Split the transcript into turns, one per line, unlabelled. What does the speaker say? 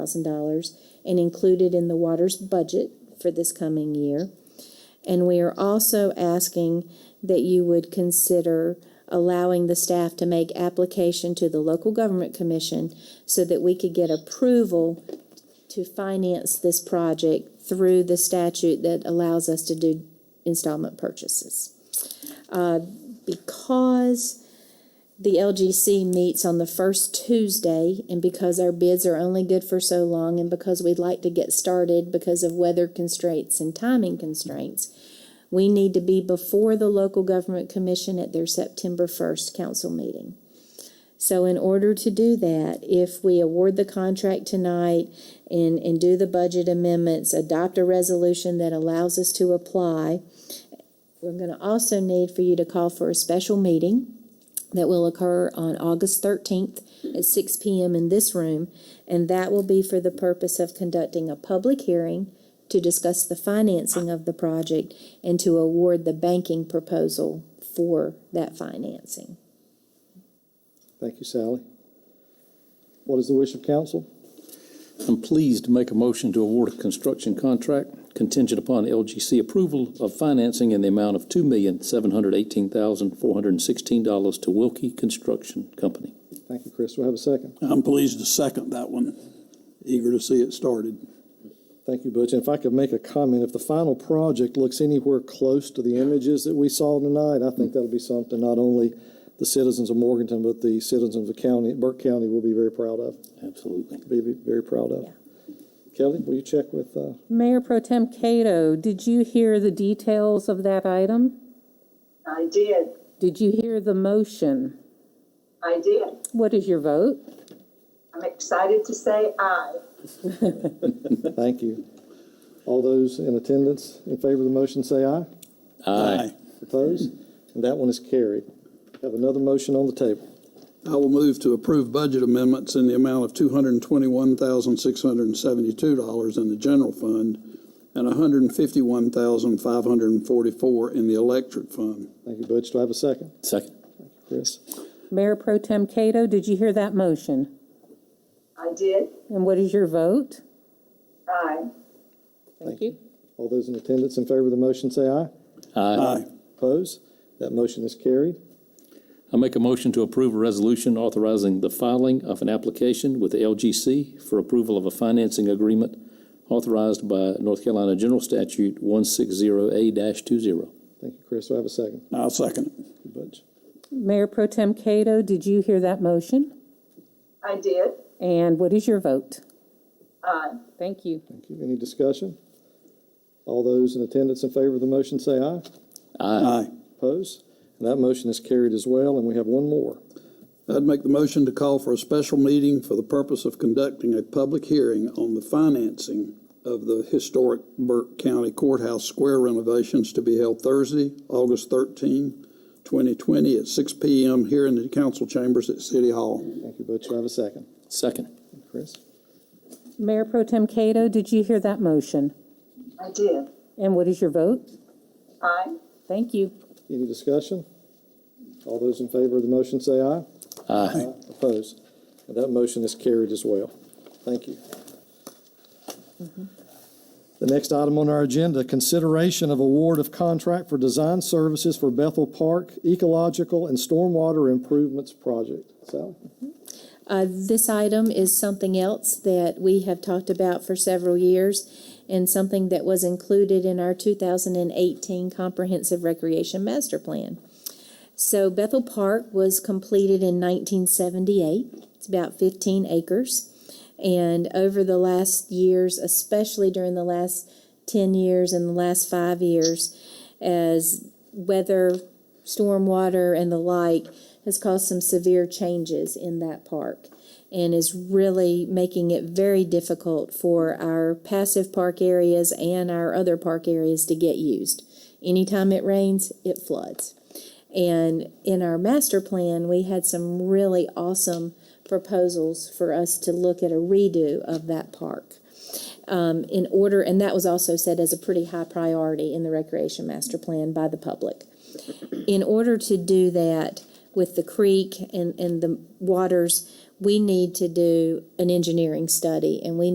thousand dollars and included in the water's budget for this coming year. And we are also asking that you would consider allowing the staff to make application to the local government commission so that we could get approval to finance this project through the statute that allows us to do installment purchases. Uh, because the LGC meets on the first Tuesday, and because our bids are only good for so long, and because we'd like to get started because of weather constraints and timing constraints, we need to be before the local government commission at their September first council meeting. So in order to do that, if we award the contract tonight and, and do the budget amendments, adopt a resolution that allows us to apply, we're gonna also need for you to call for a special meeting that will occur on August 13th at 6 PM in this room, and that will be for the purpose of conducting a public hearing to discuss the financing of the project and to award the banking proposal for that financing.
Thank you, Sally. What is the wish of council?
I'm pleased to make a motion to award a construction contract contingent upon LGC approval of financing in the amount of two million, seven hundred eighteen thousand, four hundred and sixteen dollars to Wilkie Construction Company.
Thank you, Chris. Do I have a second?
I'm pleased to second that one. Eager to see it started.
Thank you, Butch. And if I could make a comment, if the final project looks anywhere close to the images that we saw tonight, I think that'll be something not only the citizens of Morganton, but the citizens of the county, Burke County will be very proud of,
Absolutely.
be be very proud of.
Yeah.
Kelly, will you check with, uh,
Mayor Pro Tem Cato, did you hear the details of that item?
I did.
Did you hear the motion?
I did.
What is your vote?
I'm excited to say aye.
thank you. All those in attendance in favor of the motion, say aye.
Aye.
Opposed? And that one is carried. Have another motion on the table.
I will move to approve budget amendments in the amount of two hundred and twenty-one thousand, six hundred and seventy-two dollars in the general fund and hundred and fifty-one thousand, five hundred and forty-four in the electric fund.
Thank you, Butch. Do I have a second?
Second.
Chris?
Mayor Pro Tem Cato, did you hear that motion?
I did.
And what is your vote?
Aye.
Thank you.
All those in attendance in favor of the motion, say aye.
Aye.
Opposed? That motion is carried.
I make a motion to approve a resolution authorizing the filing of an application with the LGC for approval of a financing agreement authorized by North Carolina General Statute one six zero A two zero.
Thank you, Chris. Do I have a second?
I'll second it.
Thank you, Butch.
Mayor Pro Tem Cato, did you hear that motion?
I did.
And what is your vote?
Aye.
Thank you.
Thank you. Any discussion? All those in attendance in favor of the motion, say aye.
Aye.
Opposed? And that motion is carried as well, and we have one more.
I'd make the motion to call for a special meeting for the purpose of conducting a public hearing on the financing of the historic Burke County Courthouse Square renovations to be held Thursday, August 13, 2020, at 6 p.m. here in the council chambers at City Hall.
Thank you, Butch. Do I have a second?
Second.
Thank you, Chris?
Mayor Pro Tem Cato, did you hear that motion?
I did.
And what is your vote?
Aye.
Thank you.
Any discussion? All those in favor of the motion, say aye.
Aye.
Opposed? And that motion is carried as well. Thank you. The next item on our agenda, consideration of award of contract for design services for Bethel Park Ecological and Stormwater Improvements Project. Sally?
Uh, this item is something else that we have talked about for several years and something that was included in our 2018 Comprehensive Recreation Master Plan. So Bethel Park was completed in 1978. It's about 15 acres. And over the last years, especially during the last 10 years and the last five years, as weather, stormwater, and the like has caused some severe changes in that park and is really making it very difficult for our passive park areas and our other park areas to get used. Anytime it rains, it floods. And in our master plan, we had some really awesome proposals for us to look at a redo of that park. Um, in order, and that was also said as a pretty high priority in the recreation master plan by the public. In order to do that with the creek and, and the waters, we need to do an engineering study and we